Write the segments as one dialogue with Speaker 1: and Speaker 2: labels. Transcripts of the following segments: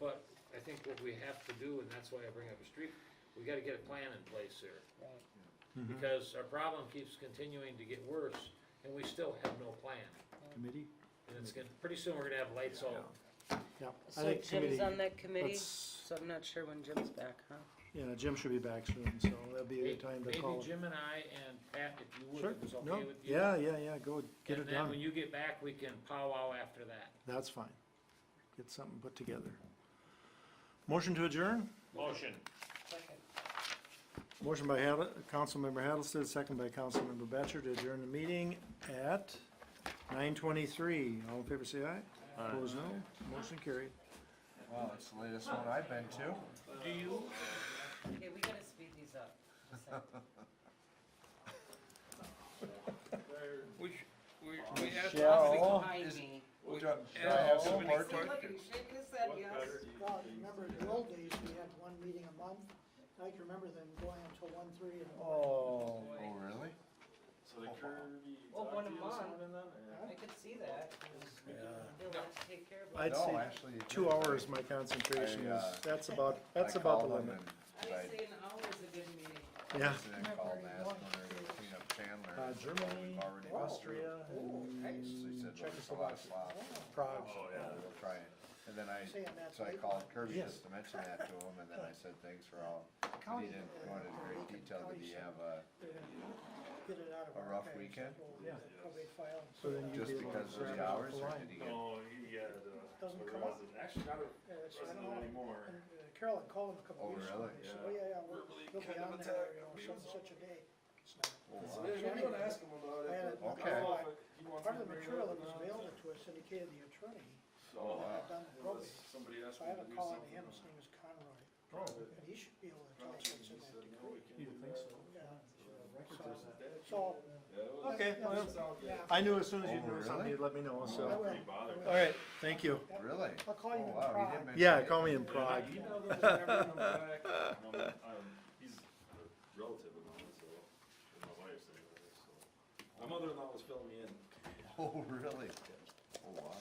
Speaker 1: but I think what we have to do, and that's why I bring up a street, we gotta get a plan in place here.
Speaker 2: Right.
Speaker 3: Hmm.
Speaker 1: Because our problem keeps continuing to get worse, and we still have no plan.
Speaker 3: Committee?
Speaker 1: And it's gonna, pretty soon we're gonna have lights all,
Speaker 3: Yeah. I
Speaker 2: So
Speaker 3: think
Speaker 2: Jim's
Speaker 3: committee-
Speaker 2: on that committee,
Speaker 3: let's-
Speaker 2: so I'm not sure when Jim's back, huh?
Speaker 3: Yeah, Jim should be back soon, so that'll be a
Speaker 1: maybe
Speaker 3: good time to call. him.
Speaker 1: Jim and I and Pat, if you would,
Speaker 3: Sure,
Speaker 1: if it's
Speaker 3: no,
Speaker 1: okay with you.
Speaker 3: yeah, yeah, yeah, go get it
Speaker 1: And then when
Speaker 3: done.
Speaker 1: you get back, we can powwow after that.
Speaker 3: That's fine. Get something put together. Motion to adjourn?
Speaker 1: Motion.
Speaker 3: Motion by Had, Councilmember Hattlested, second by Councilmember Batchor to adjourn the meeting at nine twenty-three. All in favor, say aye. Opposed, no. Motion carried.
Speaker 4: Well, it's the latest one I've been to.
Speaker 1: Uh, Do you,
Speaker 2: Okay, we gotta speed these up.
Speaker 5: We, sh- we, we asked how many,
Speaker 4: Shall,
Speaker 2: Behind
Speaker 4: is,
Speaker 2: me.
Speaker 4: do- do I have
Speaker 5: How many
Speaker 4: support? to-
Speaker 5: questions?
Speaker 6: Well, you remember in the old days, we had one meeting a month, I can remember them going until one, three, and
Speaker 4: Oh, oh, really?
Speaker 7: So the Kirby
Speaker 2: Well, Oh,
Speaker 7: talked
Speaker 2: one
Speaker 7: to
Speaker 2: a
Speaker 7: you this
Speaker 2: month.
Speaker 7: morning then, or?
Speaker 2: I could see that. They'll have to take care of it.
Speaker 3: I'd
Speaker 4: No,
Speaker 3: say
Speaker 4: actually, it
Speaker 3: two
Speaker 4: didn't.
Speaker 3: hours my concentration
Speaker 4: I, uh,
Speaker 3: is, that's about, that's
Speaker 4: I
Speaker 3: about the
Speaker 4: called them
Speaker 3: limit.
Speaker 2: I'd
Speaker 4: and I-
Speaker 2: say an hour is a good meeting.
Speaker 3: Yeah.
Speaker 4: And I called and asked when they were gonna clean up Chandler.
Speaker 3: Uh,
Speaker 4: and
Speaker 3: Germany,
Speaker 4: we've already been
Speaker 3: Austria,
Speaker 4: through.
Speaker 3: and
Speaker 4: So he said, well, there's a lot of
Speaker 3: Czechoslovakia,
Speaker 4: slop.
Speaker 3: Prague.
Speaker 4: Oh, yeah, we'll try it. And then I,
Speaker 6: Saying that's
Speaker 4: so I
Speaker 6: late.
Speaker 4: called Kirby
Speaker 3: Yes.
Speaker 4: just to mention that to him, and then I said, thanks for all. And he didn't go into great detail, but you have uh, a,
Speaker 6: get it out of
Speaker 4: A
Speaker 6: our
Speaker 4: rough
Speaker 6: archives,
Speaker 4: weekend?
Speaker 6: we'll
Speaker 3: Yeah.
Speaker 6: Probably file. and
Speaker 3: So then
Speaker 6: sort
Speaker 3: you'd
Speaker 4: just
Speaker 3: be able to
Speaker 4: because of
Speaker 3: grab it
Speaker 4: the
Speaker 3: off
Speaker 4: hours,
Speaker 3: the
Speaker 4: or
Speaker 3: line.
Speaker 4: did he get? oh,
Speaker 7: No, he had, uh,
Speaker 6: Doesn't
Speaker 7: or
Speaker 6: come up.
Speaker 7: wasn't, actually not a
Speaker 6: Yeah, that's- uh, I
Speaker 7: resident
Speaker 6: don't know.
Speaker 7: anymore.
Speaker 6: And, uh, Carolyn called him a couple
Speaker 4: Oh,
Speaker 6: weeks ago,
Speaker 4: really?
Speaker 6: and said,
Speaker 7: Yeah.
Speaker 6: oh, yeah, yeah, we're,
Speaker 7: Verbally
Speaker 6: we'll be
Speaker 7: kind of
Speaker 6: on there,
Speaker 7: attacked
Speaker 6: you know,
Speaker 7: me
Speaker 6: some
Speaker 7: or
Speaker 6: such a day.
Speaker 4: Oh,
Speaker 7: So
Speaker 4: wow.
Speaker 7: there's- we don't ask him about
Speaker 6: I had
Speaker 7: it.
Speaker 6: it-
Speaker 7: but
Speaker 4: Okay.
Speaker 7: I'll know if he wants
Speaker 6: Part
Speaker 7: me to bring
Speaker 6: of the
Speaker 7: it
Speaker 6: material
Speaker 7: up
Speaker 6: that was
Speaker 7: or not.
Speaker 6: available to us indicated the attorney
Speaker 4: Oh,
Speaker 7: So, uh, unless
Speaker 6: had done the probate,
Speaker 7: somebody asked
Speaker 6: so
Speaker 7: me
Speaker 6: I had
Speaker 7: to
Speaker 6: a
Speaker 7: do
Speaker 6: call on
Speaker 7: something
Speaker 6: him,
Speaker 7: on
Speaker 6: his name is Conroy,
Speaker 7: probate,
Speaker 6: and he should be able to
Speaker 7: I'm
Speaker 6: tell
Speaker 7: not
Speaker 6: us
Speaker 7: sure
Speaker 6: what's
Speaker 7: he
Speaker 6: in that
Speaker 7: said, no,
Speaker 6: decree.
Speaker 7: we can't
Speaker 3: You'd
Speaker 7: do
Speaker 3: think so.
Speaker 7: that.
Speaker 6: Yeah.
Speaker 7: That-
Speaker 6: So,
Speaker 7: Yeah, it was-
Speaker 3: Okay,
Speaker 7: that
Speaker 3: well,
Speaker 7: sounds good.
Speaker 6: yeah.
Speaker 3: I knew as soon as you
Speaker 4: Oh,
Speaker 3: knew something,
Speaker 4: really?
Speaker 3: you'd let me know,
Speaker 6: I
Speaker 3: so.
Speaker 6: will.
Speaker 7: Pretty bothered.
Speaker 6: I
Speaker 3: All
Speaker 6: will.
Speaker 3: right, thank you.
Speaker 4: Really?
Speaker 6: I'll call
Speaker 4: Oh,
Speaker 6: you in
Speaker 4: wow, he
Speaker 6: Prague.
Speaker 4: didn't mention
Speaker 3: Yeah,
Speaker 4: it.
Speaker 3: call me in
Speaker 7: And I
Speaker 3: Prague.
Speaker 7: emailed him whenever I'm back. Um, um, He's a relative of mine, so, and my wife's anyway, so. My mother-in-law was filling me in.
Speaker 4: Oh, really? Oh, wow.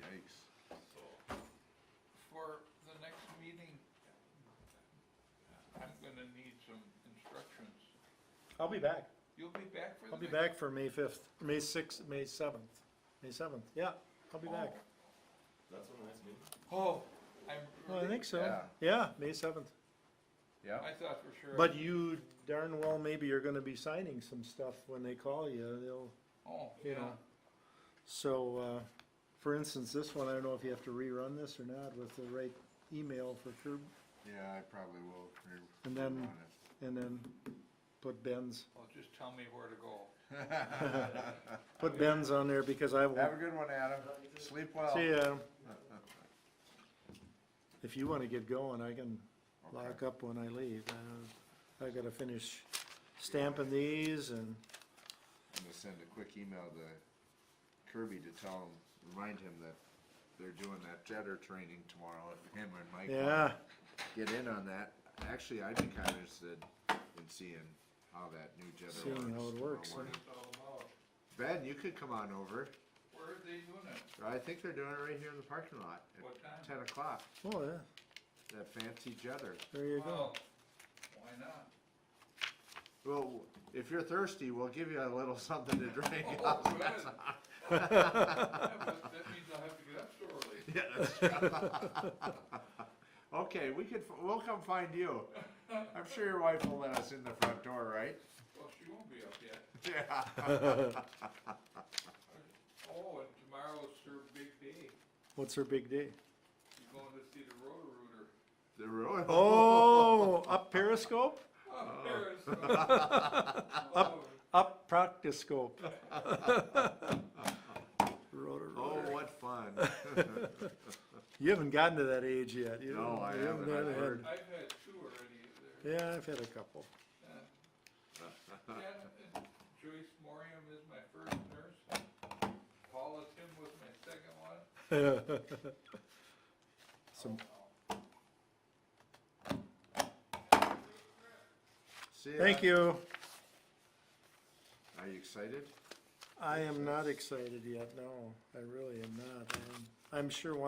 Speaker 4: Yikes.
Speaker 5: for the next meeting, I'm gonna need some instructions.
Speaker 3: I'll be back.
Speaker 5: You'll be back for the
Speaker 3: I'll be
Speaker 5: next?
Speaker 3: back for May fifth, May sixth, May seventh, May seventh. Yeah, I'll be back.
Speaker 7: That's when the next meeting.
Speaker 5: Oh, I'm.
Speaker 3: Well, I think so.
Speaker 4: Yeah.
Speaker 3: Yeah, May seventh.
Speaker 4: Yeah.
Speaker 5: I thought for sure.
Speaker 3: But you darn well maybe you're gonna be signing some stuff when they call you. They'll,
Speaker 5: Oh,
Speaker 3: you
Speaker 5: yeah.
Speaker 3: know. So, uh, for instance, this one, I don't know if you have to rerun this or not with the right email for Kirby.
Speaker 4: Yeah, I probably will. You're
Speaker 3: And then-
Speaker 4: on it.
Speaker 3: And then put Ben's,
Speaker 5: Well, just tell me where to go.
Speaker 3: put Ben's on there because I
Speaker 4: Have a
Speaker 3: won't,
Speaker 4: good one, Adam. Sleep well.
Speaker 3: see, Adam. If you wanna get going, I can lock up when I leave. Uh, I gotta finish stamping these and,
Speaker 4: I'm gonna send a quick email to Kirby to tell him, remind him that they're doing that jetter training tomorrow, if him and Mike.
Speaker 3: yeah,
Speaker 4: wanna Get in on that. Actually, I'd be kinda interested in seeing how that new jetter works.
Speaker 3: Seeing how it
Speaker 4: tomorrow
Speaker 3: works, huh?
Speaker 4: morning.
Speaker 5: Tell them out.
Speaker 4: Ben, you could come on over.
Speaker 5: Where are they doing it?
Speaker 4: I think they're doing it right here in the parking lot. at
Speaker 5: What time?
Speaker 4: Ten o'clock,
Speaker 3: oh, yeah,
Speaker 4: that fancy jetter.
Speaker 3: there you go.
Speaker 5: Well, Why not?
Speaker 4: Well, if you're thirsty, we'll give you a little something to drink.
Speaker 5: Oh, good. Yeah, but That means I'll have to get up so early.
Speaker 4: Yeah, that's Okay, we could, f- we'll come find you. I'm sure your wife will let us in the front door, right?
Speaker 5: Well, she won't be up yet.
Speaker 4: Yeah.
Speaker 5: Oh, and tomorrow's her big day.
Speaker 3: What's her big day?
Speaker 5: She's going to see the Roto-Rooter.
Speaker 4: The road.
Speaker 3: Oh, up periscope,
Speaker 5: Oh, Paris. Oh,
Speaker 3: up proctoscope. Rotor,
Speaker 4: Oh,
Speaker 3: rotor.
Speaker 4: what fun.
Speaker 3: You haven't gotten to that age yet. you
Speaker 4: No,
Speaker 3: know,
Speaker 4: I
Speaker 3: you
Speaker 4: haven't.
Speaker 3: had-
Speaker 4: I've heard.
Speaker 5: I've had two already there.
Speaker 3: Yeah, I've had a couple.
Speaker 5: Jen and Joyce Morium is my first nurse. Paula Tim was my second one.
Speaker 3: Some,
Speaker 4: See ya.
Speaker 3: thank you.
Speaker 4: Are you excited?
Speaker 3: I am not excited yet, no, I really am not. I'm- I'm sure one